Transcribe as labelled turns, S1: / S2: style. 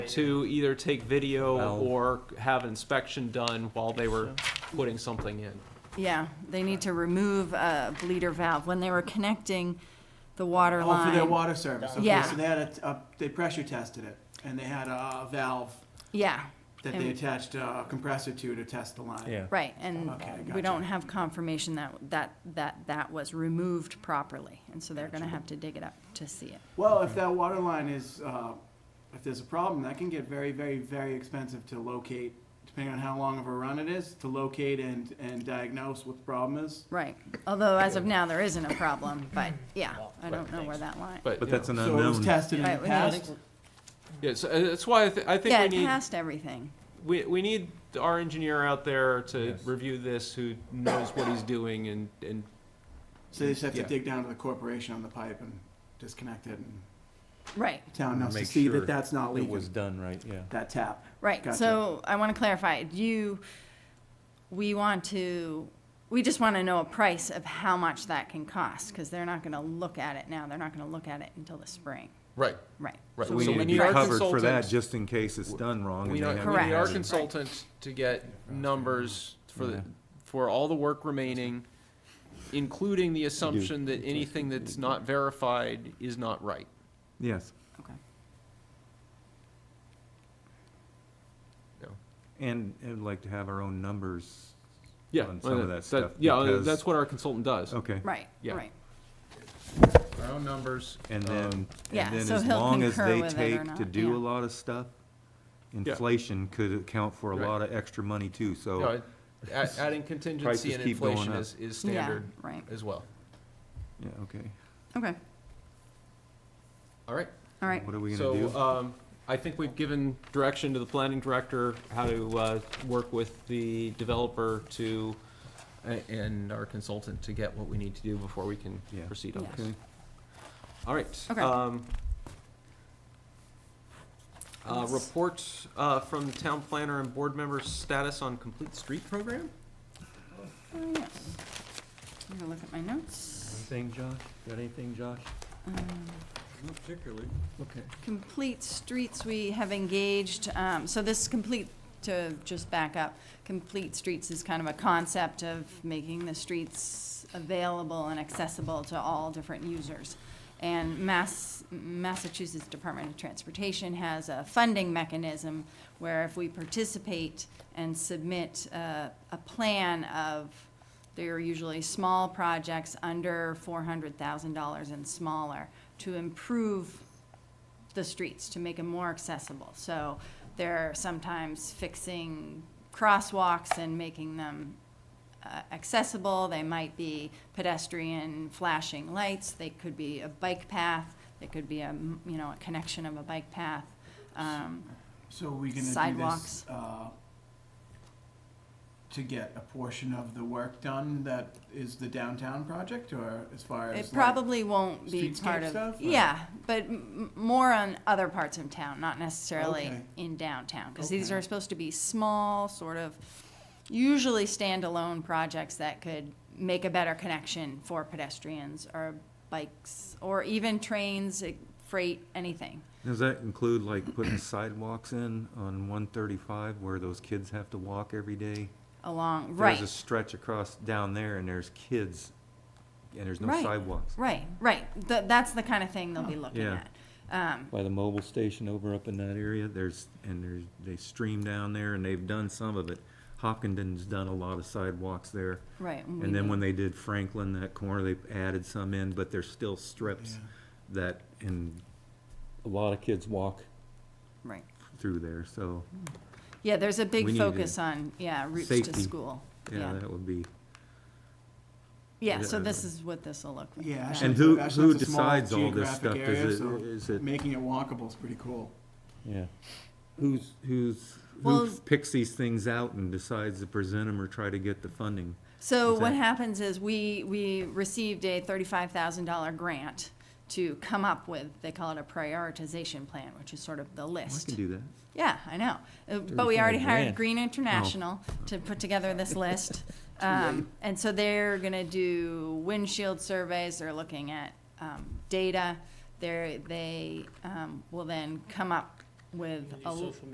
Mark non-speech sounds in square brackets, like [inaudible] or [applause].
S1: to either take video
S2: Well-
S1: or have inspection done while they were putting something in.
S3: Yeah, they need to remove a bleeder valve when they were connecting the water
S4: Oh,
S3: line.
S4: for their water service, okay,
S3: Yeah.
S4: so they had a, a- they pressure tested it, and they had a valve
S3: Yeah,
S4: that they
S3: And-
S4: attached a compressor to to test the line.
S2: Yeah.
S3: right, and
S4: Okay,
S3: we
S4: gotcha.
S3: don't have confirmation that, that, that, that was removed properly, and so they're gonna have to dig it up to see it.
S4: Well, if that water line is, uh, if there's a problem, that can get very, very, very expensive to locate, depending on how long of a run it is, to locate and, and diagnose what the problem is.
S3: Right, although as of now, there isn't a problem, but, yeah, I don't know where that line.
S1: But,
S2: But
S1: you know,
S2: that's an
S4: So it was
S2: unknown.
S4: tested in the
S3: Right, we need-
S4: past,
S1: yeah, so uh, that's why I, thi- I
S3: Yeah,
S1: think
S3: it
S1: we need,
S3: passed everything,
S1: we, we need our engineer out there to
S2: Yes.
S1: review this, who knows what he's doing and, and,
S4: so they just have to
S1: Yeah.
S4: dig down to the corporation on the pipe and disconnect it, and
S3: right.
S4: town knows to
S2: Make
S4: see
S2: sure
S4: that that's not
S2: It was
S4: leaking,
S2: done right, yeah.
S4: that tap.
S3: Right,
S4: Gotcha.
S3: so I want to clarify, do you, we want to, we just want to know a price of how much that can cost, because they're not going to look at it now, they're not going to look at it until the spring,
S1: right.
S3: right?
S1: Right,
S3: So
S1: we
S3: so
S1: need to be
S3: price-
S1: covered. consultant-
S2: just in case it's done wrong.
S1: We
S2: and they
S1: don't,
S2: have
S1: we need our
S3: Correct.
S1: consultant to get numbers for
S2: Yeah.
S1: the, for all the work remaining, including the assumption that
S2: Just-
S1: anything that's not verified is not right.
S2: Yes,
S3: Okay.
S2: and I'd like to have our own numbers.
S1: Yeah.
S2: On some of that stuff,
S1: Yeah,
S2: because-
S1: that's what our consultant does.
S2: Okay.
S3: Right,
S1: Yeah.
S3: right,
S1: Our own numbers.
S2: And then,
S3: Um, yeah,
S2: and then
S3: so
S2: as
S3: he'll
S2: long as
S3: concur
S2: they
S3: with it or
S2: take to
S3: not,
S2: do
S3: yeah.
S2: a lot of stuff,
S1: Yeah.
S2: inflation could account for a
S1: Right.
S2: lot of extra money too, so.
S1: No,
S2: [laughs]
S1: a- Adding contingency
S2: Prices
S1: and
S2: keep going
S1: inflation
S2: up.
S1: is, is
S3: yeah,
S1: standard
S3: right,
S1: as well.
S2: Yeah, okay.
S3: okay,
S1: All right.
S3: all right,
S2: What are we gonna
S1: So,
S2: do?
S1: um, I think we've given direction to the planning director how to, uh, work with the developer to, a- and our consultant to get what we need to do before we can
S2: Yeah.
S1: proceed on this.
S2: Okay.
S1: All right.
S3: Okay.
S1: um, Uh,
S3: Yes.
S1: report, uh, from the town planner and board members' status on complete street program?
S3: Oh, yeah. I'm gonna look at my notes.
S2: Anything, Josh? Got anything, Josh?
S3: Um,
S5: Not particularly.
S2: Okay.
S3: Complete Streets, we have engaged, um, so this complete, to just back up, Complete Streets is kind of a concept of making the streets available and accessible to all different users. And Mass, Massachusetts Department of Transportation has a funding mechanism where if we participate and submit uh, a plan of they are usually small projects under four hundred thousand dollars and smaller to improve the streets, to make them more accessible. So they're sometimes fixing crosswalks and making them uh, accessible. They might be pedestrian flashing lights. They could be a bike path. They could be a, m- you know, a connection of a bike path. Um,
S4: So are we gonna do this?
S3: Sidewalks.
S4: uh, To get a portion of the work done that is the downtown project, or as far as?
S3: It
S4: like-
S3: probably won't be
S4: streetscape
S3: part
S4: stuff,
S3: of,
S4: or-
S3: yeah, but m- m- more on other parts of town, not necessarily
S4: Okay.
S3: in downtown. Because these
S4: Okay.
S3: are supposed to be small, sort of, usually standalone projects that could make a better connection for pedestrians or bikes or even trains, eh, freight, anything.
S2: Does that include like putting [clears throat] sidewalks in on one thirty-five where those kids have to walk every day?
S3: Along, right.
S2: There's a stretch across down there and there's kids and there's no
S3: Right.
S2: sidewalks.
S3: Right, right. Th- That's the kind of thing
S4: Oh,
S3: they'll be looking
S2: Yeah.
S3: at. Um,
S2: By the mobile station over up in that area, there's, and there's, they stream down there and they've done some of it. Hopkinton's done a lot of sidewalks there.
S3: Right. we
S2: And then
S3: need-
S2: when they did Franklin, that corner, they added some in, but there's still strips
S4: Yeah.
S2: that, and a lot of kids walk
S3: Right.
S2: through there, so,
S3: Yeah, there's a
S2: We
S3: big
S2: need to-
S3: focus on, yeah, routes to
S2: Safety.
S3: school.
S2: yeah, that would be.
S3: Yeah, so
S2: Yeah.
S3: this is what this'll look like.
S4: Yeah.
S2: And
S4: Ashland's-
S2: who,
S4: Ashland's
S2: who
S4: a small
S2: decides all this
S4: geographic
S2: stuff?
S4: area,
S2: Is it,
S4: so
S2: is it,
S4: Making it walkable is pretty cool.
S2: yeah. Who's, who's, who
S3: Well-
S2: picks these things out and decides to present them or try to get the funding?
S3: So
S2: Is
S3: what
S2: that-
S3: happens is we, we received a thirty-five thousand dollar grant to come up with, they call it a prioritization plan, which is sort of the
S2: I
S3: list.
S2: can do that.
S3: Yeah, I know. Uh, But we
S2: 35
S3: already hired
S2: grand. Oh.
S3: Green International to put
S2: [laughs]
S3: together this list. Um, And so they're gonna do windshield surveys, they're looking at um, data. They're, they um, will then come up
S6: with a
S3: Social